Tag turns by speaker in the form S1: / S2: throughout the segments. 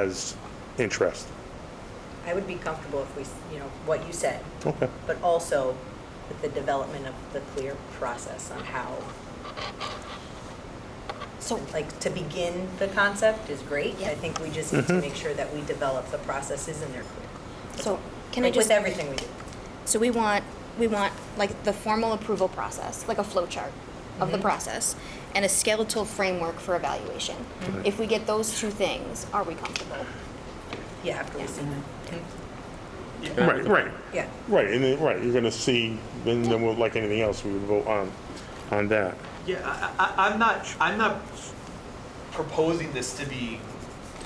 S1: as interest.
S2: I would be comfortable if we, s- you know, what you said,
S1: Okay.
S2: but also with the development of the clear process on how,
S3: So,
S2: like, to begin the concept is great. I think we just need to
S1: Mhm.
S2: make sure that we develop the processes and they're clear.
S3: so can I
S2: Like,
S3: just?
S2: With everything we do.
S3: So we want, we want like the formal approval process, like a flow chart of the
S2: Mm-hmm.
S3: process and a skeletal framework for evaluation.
S2: Mm-hmm.
S3: If we get those two things, are we comfortable?
S2: Yeah, after we see them.
S3: Mm-hmm.
S1: Right, right,
S2: Yeah,
S1: right, and then, right, you're gonna see, then, then we'll, like anything else, we would vote on, on that.
S4: Yeah, I, I, I'm not, I'm not proposing this to be,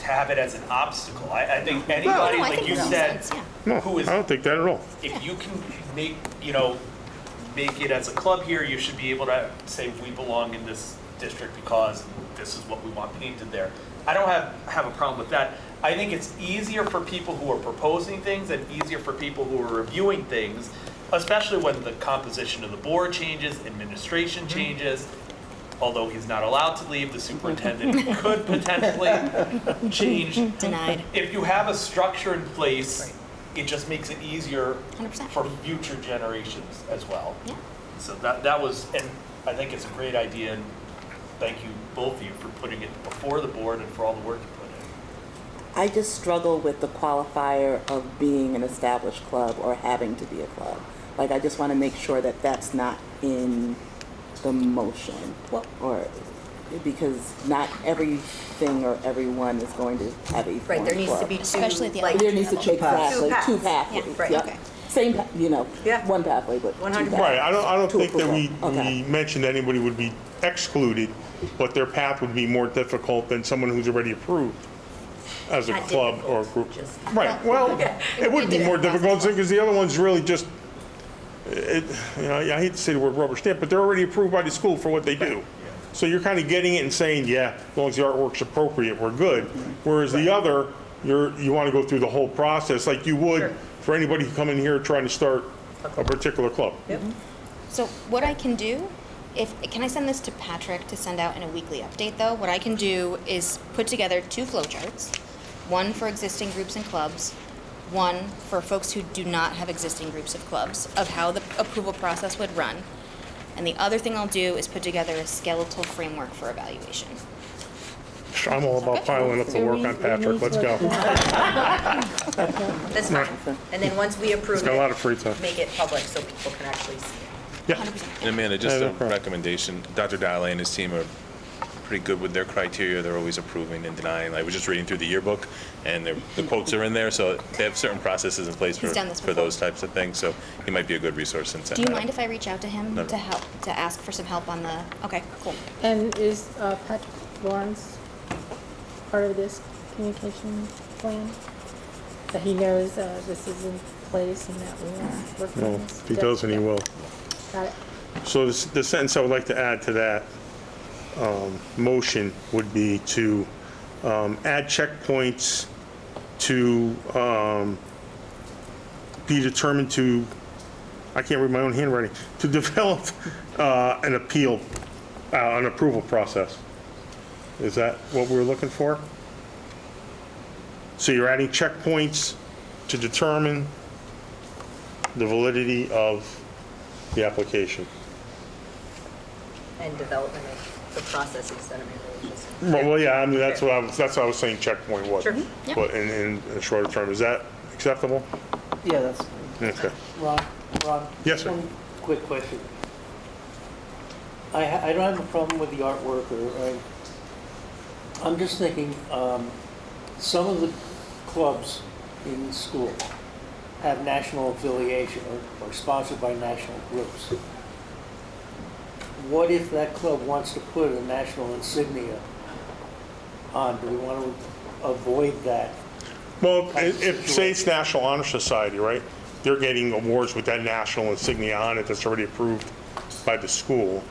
S4: to have it as an obstacle. I, I think anybody,
S3: No, I
S4: like
S3: think
S4: you
S3: it makes
S4: said,
S3: sense, yeah.
S1: No,
S4: who is,
S1: I don't think that at all.
S4: if you can make, you know, make it as a club here, you should be able to say, we belong in this district because this is what we want painted there. I don't have, have a problem with that. I think it's easier for people who are proposing things and easier for people who are reviewing things, especially when the composition of the board changes, administration changes. Although he's not allowed to leave, the superintendent could potentially change
S2: Mm-hmm.
S3: Denied.
S4: if you have a structure in place, it just makes it easier
S3: 100%.
S4: for future generations as well.
S3: Yeah.
S4: So that, that was, and I think it's a great idea, and thank you, both of you, for putting it before the board and for all the work you put in.
S5: I just struggle with the qualifier of being an established club or having to be a club. Like, I just want to make sure that that's not in the motion.
S3: Well-
S5: Or, because not everything or everyone is going to have a
S2: right, there
S5: formed
S2: needs to
S5: club.
S2: be two,
S3: Especially at the
S2: like,
S5: There needs to,
S3: Two
S5: exactly,
S2: paths.
S5: two
S2: Two paths.
S5: pathways.
S2: Yeah, right,
S5: yep.
S3: okay.
S5: Same, pa- you know,
S2: Yeah.
S5: one pathway, but two
S2: 100%.
S5: pathways.
S1: Right, I don't, I don't
S5: To
S1: think that we,
S5: approval.
S1: we
S5: Okay.
S1: mentioned anybody would be excluded, but their path would be more difficult than someone who's already approved as a
S2: Not
S1: club or a group.
S2: difficult, just-
S1: Right, well, it would be more difficult, because the other one's really just, it, you know, I hate to say the word rubber stamp, but they're already approved by the school for what they do. So you're kind of getting it and saying, yeah, as long as the artwork's appropriate, we're good. Whereas the other, you're, you want to go through the whole process, like you
S2: Sure.
S1: would for anybody who come in here trying to start a particular club.
S2: Yep.
S3: So what I can do, if, can I send this to Patrick to send out in a weekly update though? What I can do is put together two flowcharts, one for existing groups and clubs, one for folks who do not have existing groups of clubs, of how the approval process would run. And the other thing I'll do is put together a skeletal framework for evaluation.
S1: I'm all about piling up the work on Patrick, let's go.
S2: That's fine. And then once we approve
S1: He's got a lot of
S2: it,
S1: free time.
S2: make it public so people can actually see it.
S1: Yeah,
S3: Hundred percent.
S6: And Amanda, just
S1: Yeah, no
S6: a
S1: problem.
S6: recommendation, Dr. Dowley and his team are pretty good with their criteria, they're always approving and denying. I was just reading through the yearbook, and their- the quotes are in there, so they have certain processes in place for,
S3: He's done this
S6: for
S3: before.
S6: those types of things, so he might be a good resource since that.
S3: Do you mind if I reach out to him
S6: No.
S3: to help, to ask for some help on the, okay, cool.
S7: And is uh, Patrick Lawrence part of this communication plan? That he knows uh, this is in place and that we are working
S1: no,
S7: on this?
S1: if he doesn't, he will.
S7: Got it.
S1: So this- the sentence I would like to add to that um, motion would be to um, add checkpoints to um, be determined to, I can't read my own handwriting, to develop uh, an appeal, uh, an approval process. Is that what we're looking for? So you're adding checkpoints to determine the validity of the application.
S2: And development of the processes that are religious.
S1: Well, well, yeah, I mean, that's what I was, that's what I was saying checkpoint was.
S2: Sure.
S3: Yeah.
S1: But in, in a shorter term, is that acceptable?
S8: Yeah, that's,
S1: Okay.
S8: Ron, Ron.
S1: Yes, sir.
S8: One quick question. I, ha- I don't have a problem with the artwork or, or, I'm just thinking, um, some of the clubs in school have national affiliation or, or sponsored by national groups. What if that club wants to put a national insignia on? Do we want to avoid that?
S1: Well, i- if, say it's National Honor Society, right? They're getting awards with that national insignia on it that's already approved by the school.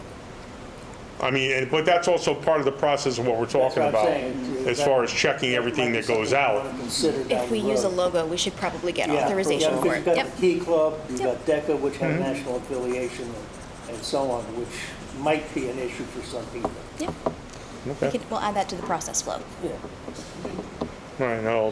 S1: I mean, and, but that's also part of the process of what we're
S8: That's
S1: talking
S8: what I'm
S1: about.
S8: saying.
S1: As far as checking everything that goes out.
S3: If we use a logo, we should probably get authorization for it.
S8: You've
S3: Yep.
S8: got the Key Club, you've
S3: Yep.
S8: got DECA, which have national affiliation and- and so on, which might be an issue for some people.
S3: Yep. We
S1: Okay.
S3: could, we'll add that to the process flow.
S8: Yeah.
S1: All I know,